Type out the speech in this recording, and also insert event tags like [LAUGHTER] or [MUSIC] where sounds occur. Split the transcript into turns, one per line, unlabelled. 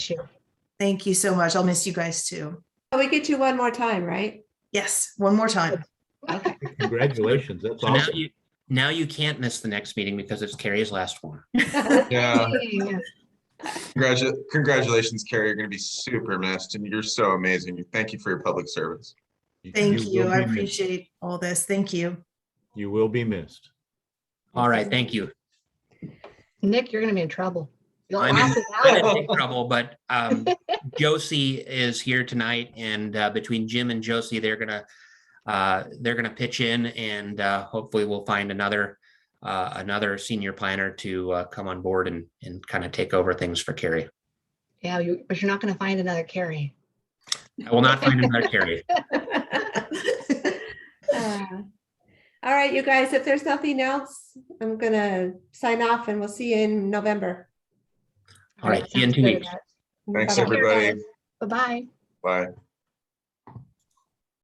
year.
Thank you so much. I'll miss you guys too.
Oh, We get you one more time, right?
Yes, one more time.
Okay.
Congratulations, that's
So now
awesome.
you, now you can't miss the next meeting because it's Carrie's last one.
Yeah,
Yeah.
congratu- congratulations, Carrie. You're going to be super missed, and you're so amazing. Thank you for your public service.
Thank you.
will
I
be missed.
appreciate all this. Thank you.
You will be missed.
All right, thank you.
Nick, you're gonna be in trouble. You'll
I'm in- [LAUGHS]
laugh it
I'm in
out.
big trouble, but um, Josie is here tonight, and uh, between Jim and Josie, they're gonna uh, they're gonna pitch in, and uh, hopefully, we'll find another uh, another senior planner to uh, come on board and and kind of take over things for Carrie.
Yeah, you, but you're not gonna find another Carrie.
I will not find another Carrie.
Uh, All right, you guys, if there's nothing else, I'm gonna sign off and we'll see you in November.
All right,
That
see you in
sounds
two
good,
weeks.
Annette.
Thanks,
Bye-bye.
everybody.
Bye-bye.
Bye.